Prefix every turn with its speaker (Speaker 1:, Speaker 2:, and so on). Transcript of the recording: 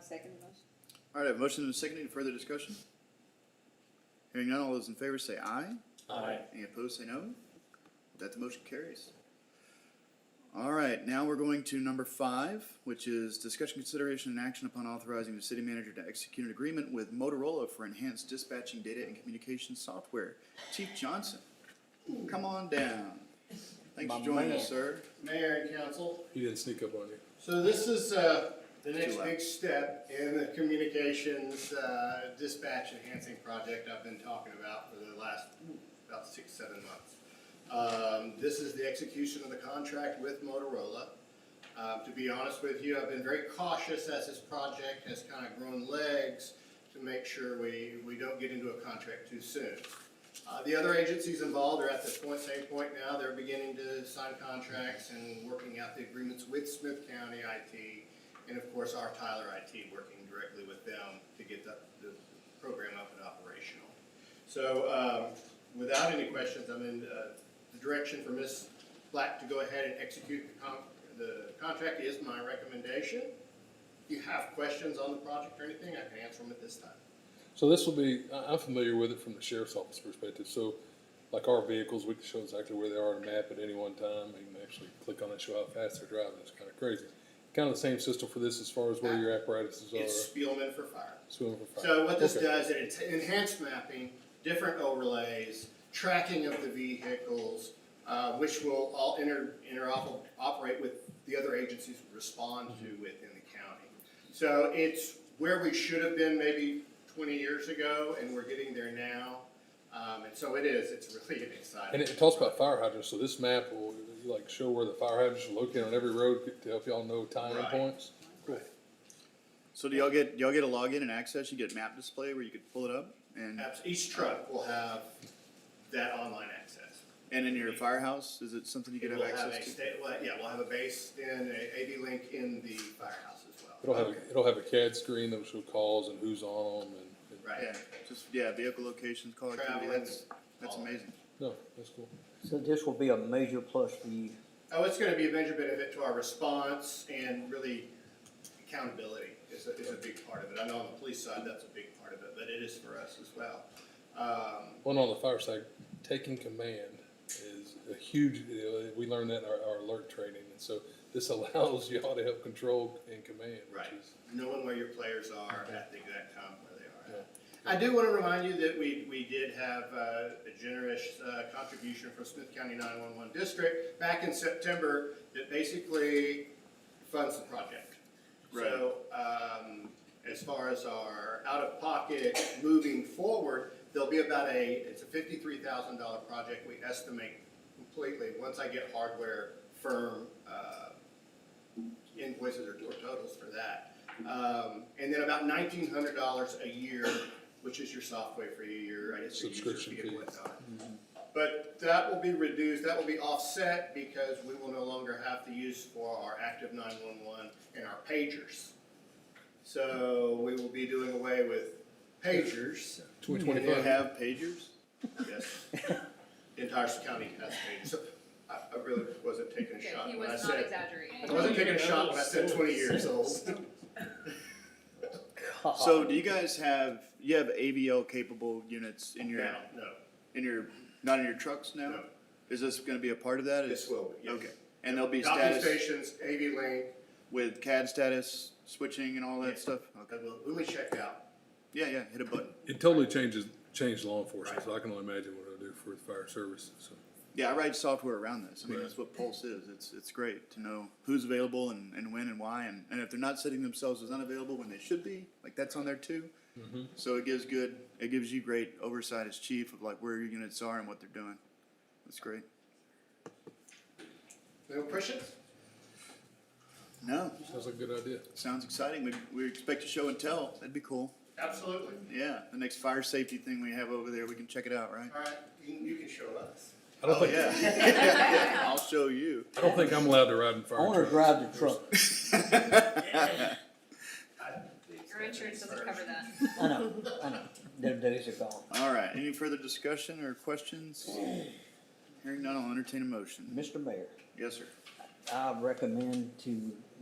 Speaker 1: second the motion.
Speaker 2: All right, I have a motion and a second. Any further discussion? Hearing none, all those in favor say aye.
Speaker 3: Aye.
Speaker 2: Any opposed say no. With That the motion carries. All right, now we're going to number five, which is discussion, consideration, and action upon authorizing the city manager to execute an agreement with Motorola for enhanced dispatching data and communication software. Chief Johnson, come on down. Thanks for
Speaker 3: My
Speaker 2: joining
Speaker 3: man.
Speaker 2: us, sir.
Speaker 4: Mayor and council,
Speaker 3: He didn't sneak up on you.
Speaker 4: so this is, uh, the
Speaker 2: Too
Speaker 4: next
Speaker 2: loud.
Speaker 4: big step in the communications, uh, dispatch enhancing project I've been talking about for the last, ooh, about six, seven months. Um, this is the execution of the contract with Motorola. Um, to be honest with you, I've been very cautious as this project has kind of grown legs to make sure we, we don't get into a contract too soon. Uh, the other agencies involved are at this point, same point now, they're beginning to sign contracts and working out the agreements with Smith County IT, and of course, our Tyler IT working directly with them to get the, the program up and operational. So, um, without any questions, I'm in, uh, the direction for Ms. Black to go ahead and execute the con, the contract is my recommendation. If you have questions on the project or anything, I can answer them at this time.
Speaker 3: So this will be, I, I'm familiar with it from the sheriff's office perspective, so like our vehicles, we can show exactly where they are on a map at any one time, you can actually click on it, show how fast they're driving, it's kinda crazy. Kinda the same system for this as far as where your apparatuses
Speaker 4: It's
Speaker 3: are.
Speaker 4: Spielman for fire.
Speaker 3: swimming for fire.
Speaker 4: So what this
Speaker 3: Okay.
Speaker 4: does, it ent- enhanced mapping, different overlays, tracking of the vehicles, uh, which will all inter, interoperate, operate with the other agencies we respond to
Speaker 3: Mm-hmm.
Speaker 4: within the county. So it's where we should have been maybe twenty years ago, and we're getting there now. Um, and so it is, it's really an
Speaker 3: And
Speaker 4: exciting.
Speaker 3: it talks about fire hydrants, so this map will like show where the fire hydrants are located on every road to help y'all know timing
Speaker 4: Right.
Speaker 3: points.
Speaker 4: Right.
Speaker 2: So do y'all get, y'all get a login and access? You get map display where you could pull it up? And,
Speaker 4: Perhaps Each truck will have that online access.
Speaker 2: and in your firehouse, is it something you could have
Speaker 4: We'll have a
Speaker 2: access to?
Speaker 4: state, well, yeah, we'll have a base and a AV link in the firehouse as well.
Speaker 3: It'll have, it'll have a CAD screen that'll show calls and who's on them and. and-
Speaker 4: Right,
Speaker 2: Yeah, just, yeah, vehicle locations, call activity,
Speaker 4: Traveling,
Speaker 2: that's, that's
Speaker 4: all of it.
Speaker 2: amazing.
Speaker 3: No, that's cool.
Speaker 5: So this will be a major plus for you.
Speaker 4: oh, it's gonna be a major benefit to our response and really accountability is a, is a big part of it. I know on the police side, that's a big part of it, but it is for us as well. Um,
Speaker 3: One on the fire side, taking command is a huge, deal. we learned that in our, our alert training, and so this allows y'all to help control and command, which
Speaker 4: Right,
Speaker 3: is,
Speaker 4: knowing where your players are at the exact time where they are at. I do want to remind you that we, we did have uh, a generous uh, contribution from Smith County 911 District back in September that basically funds the project. So, um, as far as our out-of-pocket moving forward, there'll be about a, it's a fifty-three thousand dollar project, we estimate completely, once I get hardware firm, uh, invoices or or totals for that. Um, and then about nineteen hundred dollars a year, which is your software for your, I guess, your user
Speaker 3: Subscription
Speaker 4: fee and
Speaker 3: fee.
Speaker 4: whatnot. But that will be reduced, that will be offset because we will no longer have the use for our active nine-one-one and our pagers. So we will be doing away with pagers.
Speaker 3: Twenty
Speaker 2: Do you
Speaker 3: twenty-five.
Speaker 2: have pagers?
Speaker 4: Yes. The entire county has pagers. So I, I really wasn't taking a
Speaker 1: Okay,
Speaker 4: shot
Speaker 1: he
Speaker 4: when I
Speaker 1: was not
Speaker 4: said, I
Speaker 1: exaggerating.
Speaker 4: wasn't taking a shot when I said twenty years old.
Speaker 5: Uh,
Speaker 2: So do you guys have, you have AVL capable units in your,
Speaker 4: Now, no,
Speaker 2: in your, not in your trucks now?
Speaker 4: No.
Speaker 2: Is this gonna be a part of that? Is-
Speaker 4: this will be, yes.
Speaker 2: Okay, and there'll be
Speaker 4: Docking
Speaker 2: status
Speaker 4: stations, AV link,
Speaker 2: with CAD status switching and all that
Speaker 4: Yeah.
Speaker 2: stuff?
Speaker 4: uh,
Speaker 2: Okay,
Speaker 4: well, when we check out,
Speaker 2: yeah, yeah, hit a button.
Speaker 3: It totally changes, changed law enforcement, so I can only imagine what it'll do for the fire service, so.
Speaker 2: Yeah, I write software around this. I mean,
Speaker 3: Right.
Speaker 2: that's what Pulse is. It's, it's great to know who's available and, and when and why. And, and if they're not setting themselves as unavailable when they should be, like that's on there too. So it gives good, it gives you great oversight as chief of like where your units are and what they're doing. That's great.
Speaker 4: no questions?
Speaker 2: No,
Speaker 3: Sounds like a good idea.
Speaker 2: sounds exciting. We, we expect a show and tell. That'd be cool.
Speaker 4: Absolutely.
Speaker 2: Yeah, the next fire safety thing we have over there, we can check it out, right?
Speaker 4: All right, you, you can show us.
Speaker 3: I don't
Speaker 2: Oh,
Speaker 3: think,
Speaker 2: yeah. Yeah, I'll show you.
Speaker 3: I don't think I'm allowed to ride in
Speaker 5: I
Speaker 3: fire
Speaker 5: wanna
Speaker 3: trucks.
Speaker 5: uh, drive the truck.
Speaker 1: Your insurance doesn't cover that.
Speaker 5: I know, I know. Them days are gone.
Speaker 2: All right, any further discussion or questions? Hearing none, I'll entertain a motion.
Speaker 5: Mr. Mayor,
Speaker 2: Yes, sir.
Speaker 5: I recommend to